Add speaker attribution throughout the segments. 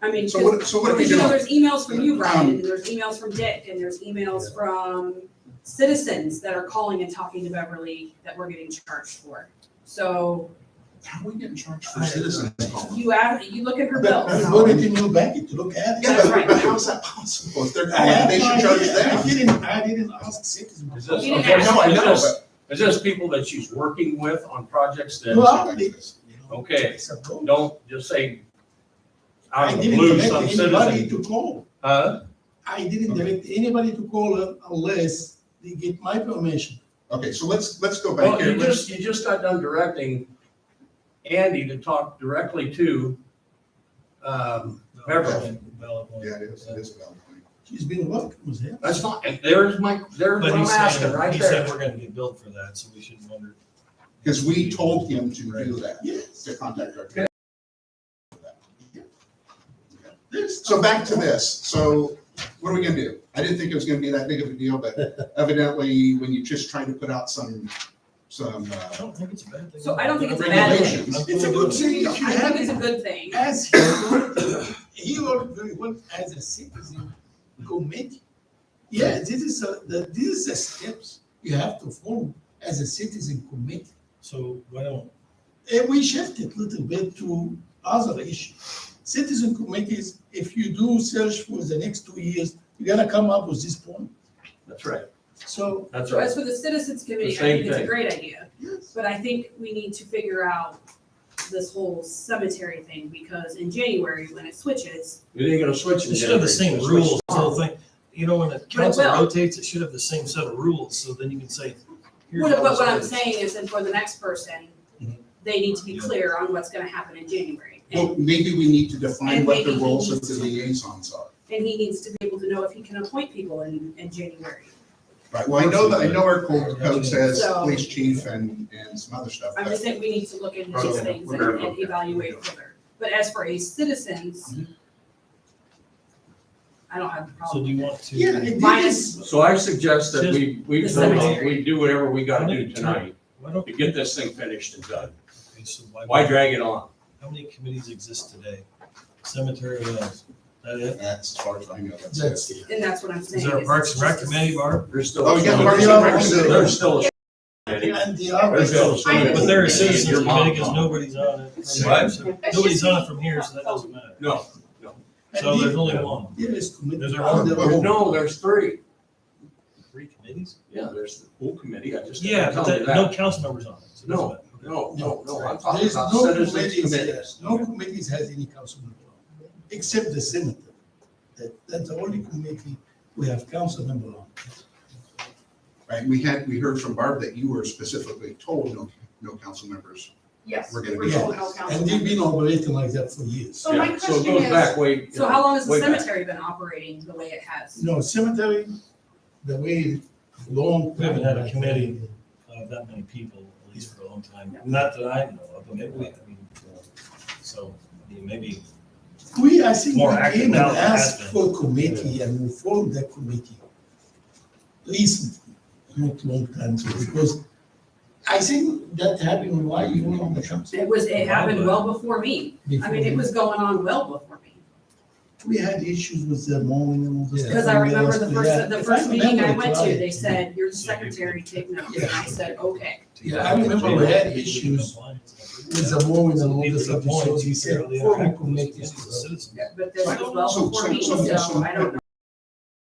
Speaker 1: I mean,
Speaker 2: So
Speaker 1: 'cause-
Speaker 2: what, so what are we
Speaker 1: because, you know,
Speaker 2: doing?
Speaker 1: there's emails from you, Brian, and there's emails from Dick, and there's emails from citizens that are calling and talking to Beverly that we're getting charged for. So
Speaker 3: How are we getting charged
Speaker 2: For citizens calling.
Speaker 1: you add, you look at her
Speaker 3: But
Speaker 1: bills.
Speaker 3: we loaded in your bank to look at it.
Speaker 2: Yeah,
Speaker 1: That's
Speaker 2: but,
Speaker 1: right.
Speaker 2: but how's that possible? If they're
Speaker 3: I
Speaker 2: calling,
Speaker 3: have
Speaker 2: they
Speaker 3: no
Speaker 2: should charge
Speaker 3: idea. I
Speaker 2: them.
Speaker 3: didn't, I didn't ask citizens.
Speaker 4: Is this,
Speaker 1: You didn't
Speaker 4: okay,
Speaker 1: ask.
Speaker 4: no, I know,
Speaker 2: Is
Speaker 4: but is this people that she's working with on projects
Speaker 3: You
Speaker 4: that
Speaker 3: already.
Speaker 4: Okay.
Speaker 3: It's a code.
Speaker 4: don't just say
Speaker 3: "Oh, I
Speaker 4: out of the
Speaker 3: didn't
Speaker 4: blue,
Speaker 3: direct
Speaker 4: some
Speaker 3: anybody
Speaker 4: citizen?
Speaker 3: to call.
Speaker 4: Huh?
Speaker 3: I didn't
Speaker 2: Okay.
Speaker 3: direct anybody to call un- unless they get my permission.
Speaker 2: Okay, so let's, let's go back
Speaker 4: Well,
Speaker 2: here.
Speaker 4: you
Speaker 2: Let's,
Speaker 4: just, you just got done directing Andy to talk directly to, um, Beverly.
Speaker 2: yeah, it is, it is valid.
Speaker 3: She's been working with him.
Speaker 4: That's not, there's my, there's what
Speaker 5: But
Speaker 4: I'm
Speaker 5: he
Speaker 4: asking
Speaker 5: said,
Speaker 4: right
Speaker 5: he said
Speaker 4: there.
Speaker 5: we're gonna get billed for that, so we shouldn't wonder.
Speaker 2: Because we told him to do that,
Speaker 3: Yes.
Speaker 2: to contact our.
Speaker 4: Okay.
Speaker 3: There's-
Speaker 2: So back to this, so what are we gonna do? I didn't think it was gonna be that big of a deal, but evidently, when you just try to put out some, some,
Speaker 5: I
Speaker 2: uh,
Speaker 5: don't think it's a bad thing.
Speaker 1: So I don't think it's a bad thing.
Speaker 2: regulations.
Speaker 3: It's a good thing.
Speaker 1: I
Speaker 3: You
Speaker 1: think
Speaker 3: have
Speaker 1: it's a
Speaker 3: it.
Speaker 1: good thing.
Speaker 3: As he, he worked very well as a citizen committee. Yeah, this is a, the, these are steps you have to follow as a citizen committee.
Speaker 5: So why don't,
Speaker 3: And we shifted a little bit to other issues. Citizen committees, if you do search for the next two years, you're gonna come up with this point.
Speaker 4: That's right,
Speaker 3: So,
Speaker 4: that's
Speaker 1: So
Speaker 4: right.
Speaker 1: as for the citizens committee, I
Speaker 4: The same
Speaker 1: think it's a
Speaker 4: thing.
Speaker 1: great idea,
Speaker 3: yes,
Speaker 1: but I think we need to figure out this whole cemetery thing, because in January, when it switches,
Speaker 4: It ain't gonna switch. in
Speaker 5: it should have the
Speaker 4: January.
Speaker 5: same
Speaker 4: It's gonna
Speaker 5: rules,
Speaker 4: switch
Speaker 5: the whole thing. You know, when the council
Speaker 1: will.
Speaker 5: rotates, it should have the same set of rules, so then you can say. here's
Speaker 1: what,
Speaker 5: how
Speaker 1: but
Speaker 5: this
Speaker 1: what I'm
Speaker 5: is.
Speaker 1: saying is, and for the next person,
Speaker 4: Mm-hmm.
Speaker 1: they need to be clear on what's gonna happen in January.
Speaker 2: well,
Speaker 1: And,
Speaker 2: maybe we need to define
Speaker 1: And
Speaker 2: what the
Speaker 1: maybe he
Speaker 2: roles of the
Speaker 1: needs to-
Speaker 2: liaisons are.
Speaker 1: and he needs to be able to know if he can appoint people in, in January.
Speaker 2: Right, well, I know that, I know our code, code says
Speaker 1: So-
Speaker 2: police chief and, and some other stuff,
Speaker 1: I'm
Speaker 2: but
Speaker 1: just saying we need to look into these
Speaker 2: Okay.
Speaker 1: things and and evaluate further. But as for a citizens,
Speaker 5: Mm-hmm.
Speaker 1: I don't have a
Speaker 5: So
Speaker 1: problem.
Speaker 5: do you want to?
Speaker 3: yeah, it
Speaker 1: Minus-
Speaker 3: is.
Speaker 4: So I suggest that we, we,
Speaker 1: The cemetery.
Speaker 4: we do whatever we gotta do tonight
Speaker 5: Why don't,
Speaker 4: to get this thing finished and done.
Speaker 5: okay, so why?
Speaker 4: Why drag it on?
Speaker 5: How many committees exist today? Cemetery, what else? That it?
Speaker 2: that's as far as I know, that's it.
Speaker 3: That's it.
Speaker 1: And that's what I'm saying.
Speaker 5: Is there a
Speaker 1: is
Speaker 5: Parks
Speaker 1: it's
Speaker 5: and Rec
Speaker 1: just a-
Speaker 5: committee, Barb?
Speaker 4: There's still.
Speaker 2: Oh, yeah,
Speaker 3: Parks and Rec.
Speaker 4: There's still. a-
Speaker 3: And the
Speaker 4: There's still.
Speaker 3: others,
Speaker 4: a cemetery.
Speaker 5: But there are
Speaker 1: Your
Speaker 4: mom
Speaker 5: citizens committee because
Speaker 4: called.
Speaker 5: nobody's on it. from
Speaker 4: What?
Speaker 5: here, so- Nobody's on it from here, so that doesn't matter.
Speaker 4: No,
Speaker 5: So
Speaker 3: and
Speaker 5: there's
Speaker 3: the,
Speaker 5: only one.
Speaker 3: there is committee.
Speaker 5: There's a-
Speaker 3: on the
Speaker 4: there's-
Speaker 3: whole.
Speaker 4: no, there's three.
Speaker 5: Three committees?
Speaker 4: Yeah, there's the pool committee, I just.
Speaker 5: Yeah, but
Speaker 4: tell
Speaker 5: that,
Speaker 4: you
Speaker 5: no council members on it. so it doesn't
Speaker 4: No,
Speaker 5: matter.
Speaker 4: No, no, no, I'm
Speaker 3: There
Speaker 4: talking
Speaker 3: is
Speaker 4: about
Speaker 3: no
Speaker 4: citizens
Speaker 3: committees,
Speaker 4: committee.
Speaker 3: yes, no committees has any council member, on, except the cemetery. That, that's the only committee we have council member on.
Speaker 2: Right, we had, we heard from Barb that you were specifically told no, no council members.
Speaker 1: Yes.
Speaker 2: We're gonna
Speaker 1: we're
Speaker 2: be
Speaker 1: told
Speaker 2: on
Speaker 1: no
Speaker 2: this.
Speaker 1: council
Speaker 3: And they've been
Speaker 1: members.
Speaker 3: operating like that for years.
Speaker 6: So my
Speaker 4: Yeah, it
Speaker 6: question
Speaker 4: goes
Speaker 6: is-
Speaker 4: back way-
Speaker 1: So how long has the
Speaker 4: way back.
Speaker 1: cemetery been operating the way it has?
Speaker 3: No, cemetery, the way long.
Speaker 5: We haven't had a committee. Uh, that many people, at least for a long time. Not that I know of, but maybe we, I mean, uh, so I mean, maybe,
Speaker 3: We, I think,
Speaker 5: More
Speaker 3: we
Speaker 5: active
Speaker 3: came and
Speaker 5: now than it has
Speaker 3: asked for committee and we formed that committee. Recently, not long time, ago, because I think that happened while you were on the council.
Speaker 1: It was, it happened well before me. I mean, it was going on well before me.
Speaker 3: We had issues with the mowing and all this.
Speaker 1: Because I remember the first, the first meeting I went to, they said, you're the secretary, take notes. And I said, okay.
Speaker 3: Yeah, I remember we had issues With the mowing and all
Speaker 5: People
Speaker 3: this
Speaker 5: get
Speaker 3: stuff, so
Speaker 5: points,
Speaker 3: he
Speaker 5: you
Speaker 3: said,
Speaker 5: barely
Speaker 3: form
Speaker 5: interact with those
Speaker 3: committees.
Speaker 5: people as citizens.
Speaker 1: But this was
Speaker 2: So-
Speaker 1: well before me,
Speaker 2: so- so-
Speaker 1: so I don't know.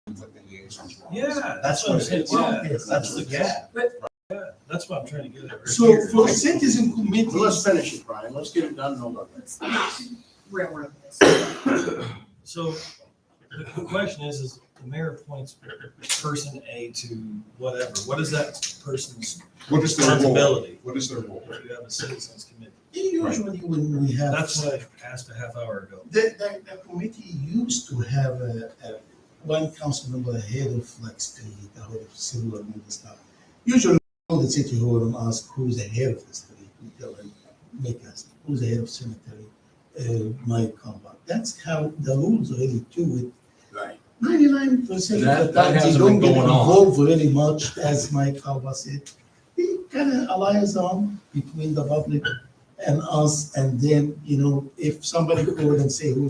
Speaker 2: What the liaisons were.
Speaker 5: Yeah, that's what I'm saying,
Speaker 3: Well,
Speaker 5: yeah,
Speaker 3: yes,
Speaker 5: that's the gap.
Speaker 1: But-
Speaker 5: Yeah, that's what I'm trying to get at. right
Speaker 3: So
Speaker 5: here.
Speaker 3: for citizen committee.
Speaker 4: Well, let's finish it, Brian, let's get it done and over with.
Speaker 1: Let's not railroad this.
Speaker 5: So the the question is, is the mayor appoints person A to whatever, what is that person's
Speaker 2: What is their role?
Speaker 5: responsibility?
Speaker 2: What is their role?
Speaker 5: If you have a citizens committee,
Speaker 3: Usually when we have.
Speaker 5: that's what I asked a half hour ago.
Speaker 3: The, the, the committee used to have a, a, one council member head of like state, the head of civil and all this stuff. Usually, all the city hall and ask who's the head of the state, we tell them, make us, who's the head of cemetery, uh, my compound. That's how the rules really do
Speaker 4: Right.
Speaker 3: it. Ninety-nine percent
Speaker 4: That-
Speaker 3: of the
Speaker 4: that
Speaker 3: time, they
Speaker 4: hasn't
Speaker 3: don't
Speaker 4: been
Speaker 3: get
Speaker 4: going on.
Speaker 3: involved really much, as Mike Alba said. They kind of alliance on between the public and us, and then, you know, if somebody called and say, who's